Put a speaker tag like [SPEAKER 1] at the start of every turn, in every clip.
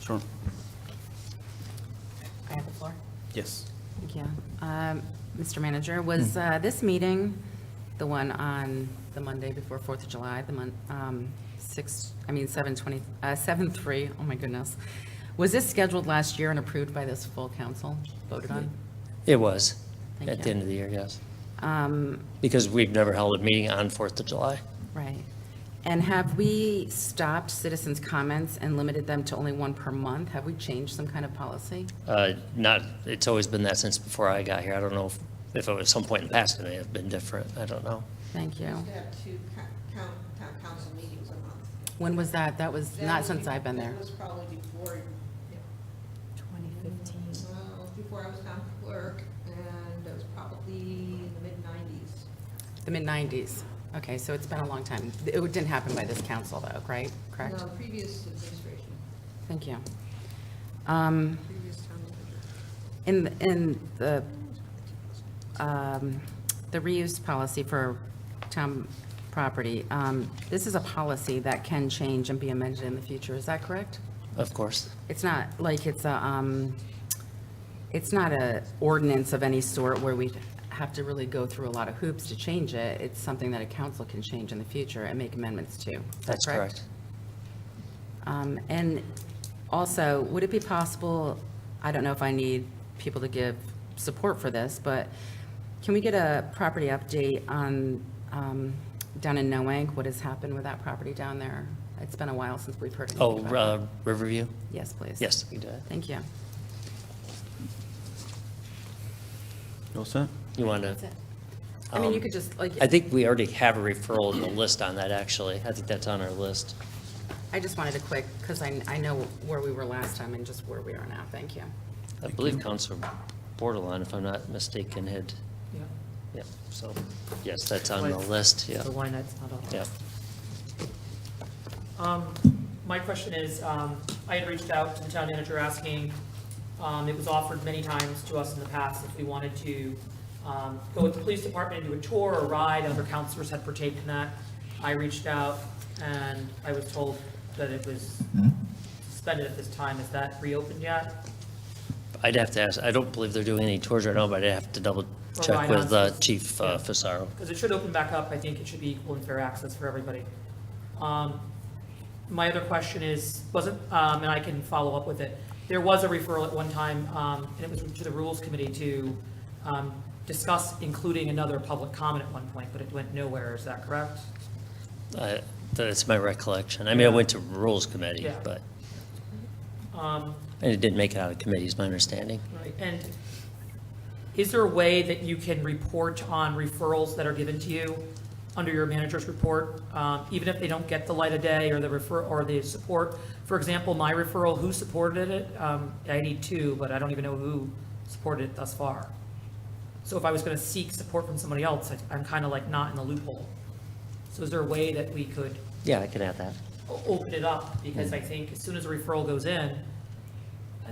[SPEAKER 1] Sure.
[SPEAKER 2] I have the floor.
[SPEAKER 1] Yes.
[SPEAKER 2] Thank you. Um, Mr. Manager, was uh, this meeting, the one on the Monday before Fourth of July, the month, six, I mean, seven twenty, uh, seven three, oh my goodness. Was this scheduled last year and approved by this full council, voted on?
[SPEAKER 3] It was,
[SPEAKER 2] Thank
[SPEAKER 3] at the
[SPEAKER 2] you.
[SPEAKER 3] end of the year, yes.
[SPEAKER 2] Um,
[SPEAKER 3] Because we've never held a meeting on Fourth of July.
[SPEAKER 2] Right. And have we stopped citizens' comments and limited them to only one per month? Have we changed some kind of policy?
[SPEAKER 3] Uh, Not, it's always been that since before I got here. I don't know if- if it was some point in the past, it may have been different. I don't know.
[SPEAKER 2] Thank you.
[SPEAKER 4] used to have two co- town, town council meetings a month.
[SPEAKER 2] When was that? That was
[SPEAKER 4] That
[SPEAKER 2] not
[SPEAKER 4] was
[SPEAKER 2] since
[SPEAKER 4] be-
[SPEAKER 2] I've been there.
[SPEAKER 4] That was probably before, yeah,
[SPEAKER 5] 2015.
[SPEAKER 4] well, before I was town clerk, and it was probably in the mid-nineties.
[SPEAKER 2] The mid-nineties. Okay, so it's been a long time. It didn't happen by this council though, right? Correct?
[SPEAKER 4] No, previous administration,
[SPEAKER 2] Thank you. Um,
[SPEAKER 4] previous town manager.
[SPEAKER 2] in, in the, um, the reuse policy for town property, um, this is a policy that can change and be amended in the future. Is that correct?
[SPEAKER 3] Of course,
[SPEAKER 2] It's not like it's a, um, it's not a ordinance of any sort where we have to really go through a lot of hoops to change it. It's something that a council can change in the future and make amendments to. Is that
[SPEAKER 3] that's correct.
[SPEAKER 2] Um, and also, would it be possible, I don't know if I need people to give support for this, but can we get a property update on, um, down in Noank, what has happened with that property down there? It's been a while since we've heard
[SPEAKER 3] Oh,
[SPEAKER 2] anything about it.
[SPEAKER 3] uh, Riverview?
[SPEAKER 2] Yes, please.
[SPEAKER 3] Yes, we did.
[SPEAKER 2] Thank you.
[SPEAKER 1] You all set?
[SPEAKER 3] You want to?
[SPEAKER 2] I mean, you
[SPEAKER 3] Um,
[SPEAKER 2] could just, like,
[SPEAKER 3] I think we already have a referral in the list on that, actually. I think that's on our list.
[SPEAKER 2] I just wanted a quick, because I, I know where we were last time and just where we are now. Thank you.
[SPEAKER 3] I believe Counselor Bordelon, if I'm not mistaken, had,
[SPEAKER 5] Yeah.
[SPEAKER 3] yeah, so, yes, that's on the list, yeah.
[SPEAKER 5] So why not, it's not on.
[SPEAKER 3] Yeah.
[SPEAKER 6] Um, My question is, um, I had reached out to the town manager asking, um, it was offered many times to us in the past if we wanted to um, go with the police department, and do a tour or ride, other councilors had partaken in that. I reached out and I was told that it was suspended at this time. Is that reopened yet?
[SPEAKER 3] I'd have to ask, I don't believe they're doing any tours right now, but I'd have to double check
[SPEAKER 6] Right
[SPEAKER 3] with
[SPEAKER 6] on.
[SPEAKER 3] uh, Chief uh,
[SPEAKER 6] Yeah.
[SPEAKER 3] Fasaro.
[SPEAKER 6] Because it should open back up, I think it should be equal and fair access for everybody. Um, My other question is, wasn't, um, and I can follow up with it, there was a referral at one time, um, and it was to the Rules Committee to um, discuss including another public comment at one point, but it went nowhere, is that correct?
[SPEAKER 3] I- That's my recollection. I mean, I went to Rules Committee,
[SPEAKER 6] Yeah.
[SPEAKER 3] but,
[SPEAKER 6] Um,
[SPEAKER 3] and it didn't make it out of committee, is my understanding.
[SPEAKER 6] Right, and is there a way that you can report on referrals that are given to you under your manager's report, um, even if they don't get the light of day or the refer, or the support? For example, my referral, who supported it? Um, I need two, but I don't even know who supported it thus far. So if I was going to seek support from somebody else, I- I'm kind of like not in the loophole. So is there a way that we could
[SPEAKER 3] Yeah, I can add that.
[SPEAKER 6] o- open it up, because I think as soon as a referral goes in,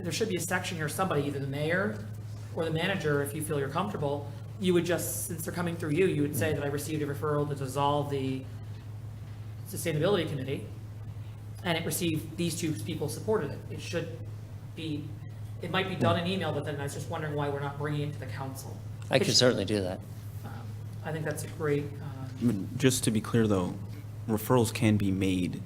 [SPEAKER 6] there should be a section here, somebody, either the mayor or the manager, if you feel you're comfortable, you would just, since they're coming through you, you would say that I received a referral to dissolve the sustainability committee, and it received, these two people supported it. It should be, it might be done in email, but then I was just wondering why we're not bringing it to the council.
[SPEAKER 3] I could certainly do that.
[SPEAKER 6] Um, I think that's a great, uh,
[SPEAKER 1] But Just to be clear, though, referrals can be made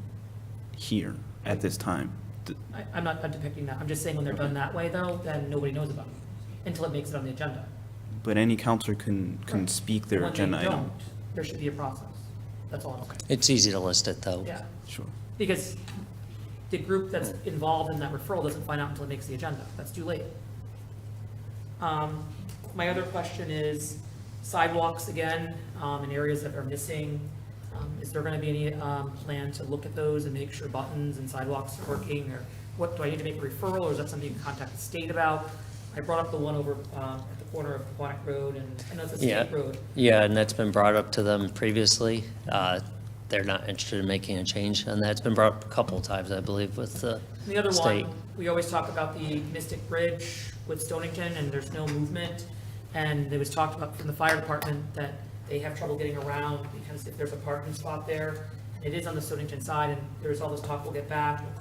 [SPEAKER 1] here at this time. Th-
[SPEAKER 6] I, I'm not I'm depicting that, I'm just saying when they're done that way though, then nobody knows about it, until it makes it on the agenda.
[SPEAKER 1] But any counselor can, can
[SPEAKER 6] Correct.
[SPEAKER 1] speak their
[SPEAKER 6] When they
[SPEAKER 1] agenda item.
[SPEAKER 6] don't, There should be a process, that's all I'm saying,
[SPEAKER 3] It's easy to list it, though.
[SPEAKER 6] yeah,
[SPEAKER 1] Sure.
[SPEAKER 6] because the group that's involved in that referral doesn't find out until it makes the agenda, that's too late. Um, my other question is sidewalks again, um, in areas that are missing, um, is there gonna be any, um, plan to look at those and make sure buttons and sidewalks are working, or what, do I need to make a referral, or is that something you can contact the state about? I brought up the one over, um, at the corner of Quonic Road and, I know it's a
[SPEAKER 3] Yeah.
[SPEAKER 6] state road,
[SPEAKER 3] Yeah, and that's been brought up to them previously. Uh, They're not interested in making a change, and that's been brought up a couple of times, I believe, with the
[SPEAKER 6] The other
[SPEAKER 3] state.
[SPEAKER 6] one, we always talk about the Mystic Bridge with Stonington, and there's no movement. And it was talked about from the fire department that they have trouble getting around because if there's a parking spot there, it is on the Stonington side, and there's all this talk, we'll get back, we'll